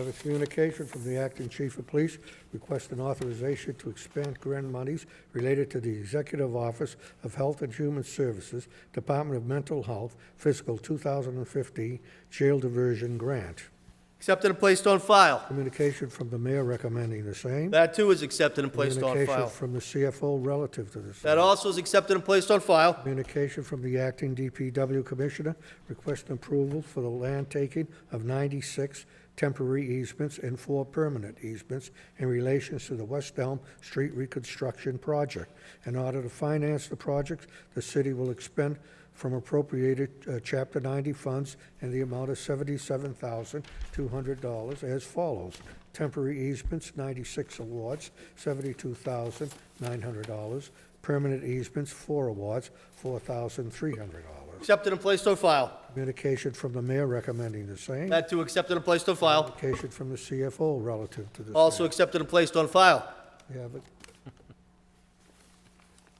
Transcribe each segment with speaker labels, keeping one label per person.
Speaker 1: Another communication from the acting chief of police requesting authorization to expand grant monies related to the Executive Office of Health and Human Services, Department of Mental Health, fiscal 2015 jail diversion grant.
Speaker 2: Accepted and placed on file.
Speaker 1: Communication from the mayor recommending the same.
Speaker 2: That too is accepted and placed on
Speaker 1: Communication
Speaker 2: file.
Speaker 1: from the CFO relative to the same.
Speaker 2: That also is accepted and placed on file.
Speaker 1: Communication from the acting DPW Commissioner requesting approval for the land taking of 96 temporary easements and four permanent easements in relations to the West Elm Street Reconstruction Project. In order to finance the projects, the city will expend from appropriated uh, Chapter 90 funds in the amount of $77,200 as follows. Temporary easements, 96 awards, $72,900. Permanent easements, four awards, $4,300.
Speaker 2: Accepted and placed on file.
Speaker 1: Communication from the mayor recommending the same.
Speaker 2: That too accepted and placed on file.
Speaker 1: Communication from the CFO relative to the same.
Speaker 2: Also accepted and placed on file.
Speaker 1: We have it.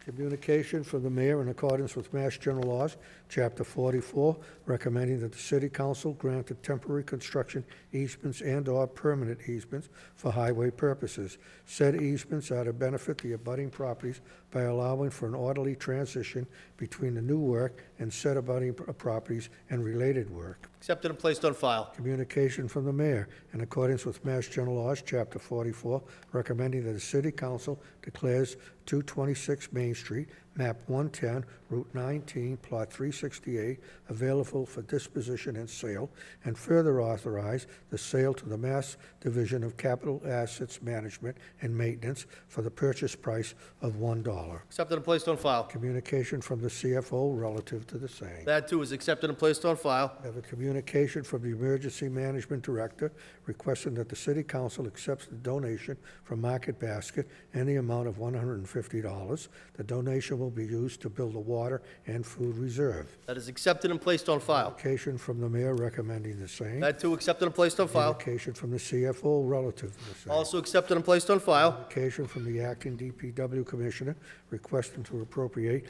Speaker 1: Communication from the mayor in accordance with Mass General Laws, Chapter 44, recommending that the city council grant the temporary construction easements and/or permanent easements for highway purposes. Said easements are to benefit the abutting properties by allowing for an orderly transition between the new work and said abutting pro- properties and related work.
Speaker 2: Accepted and placed on file.
Speaker 1: Communication from the mayor, in accordance with Mass General Laws, Chapter 44, recommending that the city council declares 226 Main Street, map 110, Route 19, Plot 368, available for disposition and sale, and further authorize the sale to the Mass Division of Capital Assets Management and Maintenance for the purchase price of $1.
Speaker 2: Accepted and placed on file.
Speaker 1: Communication from the CFO relative to the same.
Speaker 2: That too is accepted and placed on file.
Speaker 1: I have a communication from the Emergency Management Director requesting that the City Council accepts the donation from Market Basket in the amount of $150. The donation will be used to build a water and food reserve.
Speaker 2: That is accepted and placed on file.
Speaker 1: Communication from the mayor recommending the same.
Speaker 2: That too accepted and placed on file.
Speaker 1: Communication from the CFO relative to the same.
Speaker 2: Also accepted and placed on file.
Speaker 1: Application from the acting DPW Commissioner requesting to appropriate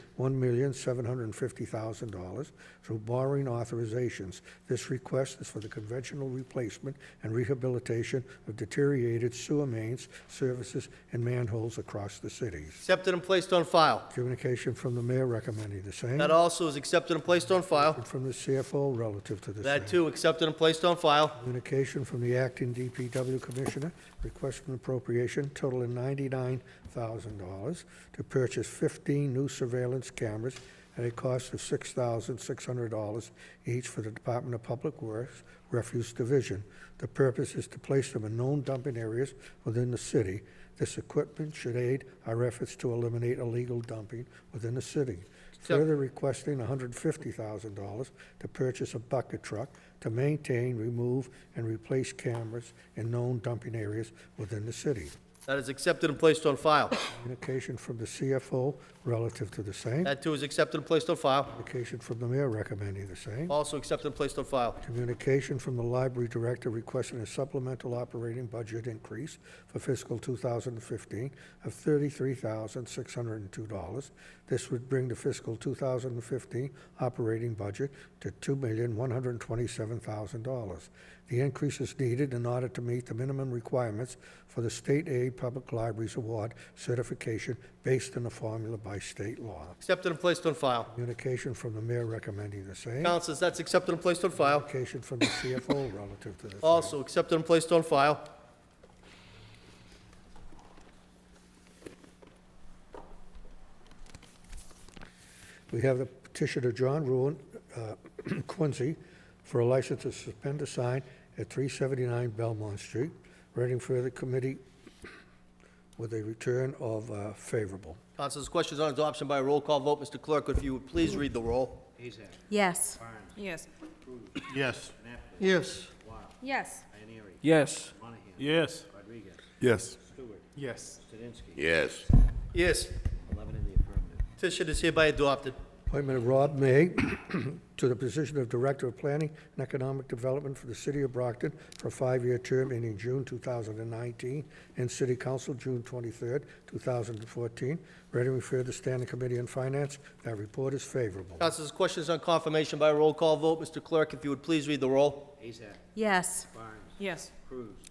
Speaker 1: $1,750,000 through borrowing authorizations. This request is for the conventional replacement and rehabilitation of deteriorated sewer mains, services, and manholes across the cities.
Speaker 2: Accepted and placed on file.
Speaker 1: Communication from the mayor recommending the same.
Speaker 2: That also is accepted and placed on file.
Speaker 1: And From the CFO relative to the same.
Speaker 2: That too accepted and placed on file.
Speaker 1: Communication from the acting DPW Commissioner requesting appropriation totaling ninety-nine thousand dollars to purchase fifteen new surveillance cameras at a cost of six thousand six hundred dollars each for the Department of Public Works Refuse Division. The purpose is to place them in known dumping areas within the city. This equipment should aid our efforts to eliminate illegal dumping within the city. Further requesting $150,000 to purchase a bucket truck to maintain, remove, and replace cameras in known dumping areas within the city.
Speaker 2: That is accepted and placed on file.
Speaker 1: Communication from the CFO relative to the same.
Speaker 2: That too is accepted and placed on file.
Speaker 1: Communication from the mayor recommending the same.
Speaker 2: Also accepted and placed on file.
Speaker 1: Communication from the library director requesting a supplemental operating budget increase for fiscal 2015 of $33,602. This would bring the fiscal 2015 operating budget to $2,127,000. The increase is needed in order to meet the minimum requirements for the State Aid Public Libraries Award certification based on a formula by state law.
Speaker 2: Accepted and placed on file.
Speaker 1: Communication from the mayor recommending the same.
Speaker 2: Councilors, that's accepted and placed on file.
Speaker 1: Application from the CFO relative to this.
Speaker 2: Also accepted and placed on file.
Speaker 1: We have the petitioner John Ruin uh, Quincy for a license to suspend a sign at 379 Belmont Street. Reading further committee with a return of uh, favorable.
Speaker 2: Councilors, questions on adoption by roll call vote. Mr. Clerk, if you would please read the roll.
Speaker 3: Yes.
Speaker 4: Yes.
Speaker 5: Yes.
Speaker 2: Yes.
Speaker 4: Yes.
Speaker 6: Yes.
Speaker 5: Yes.
Speaker 7: Yes.
Speaker 5: Yes.
Speaker 7: Yes.
Speaker 2: Yes. Petition is hereby adopted.
Speaker 1: Appointment of Rob May to the position of Director of Planning and Economic Development for the City of Brockton for a five-year term ending June 2019, and City Council June 23rd, 2014. Ready to refer to Standing Committee on Finance. That report is favorable.
Speaker 2: Councilors, questions on confirmation by roll call vote. Mr. Clerk, if you would please read the roll.
Speaker 3: Yes.
Speaker 8: yes.
Speaker 9: Cruz.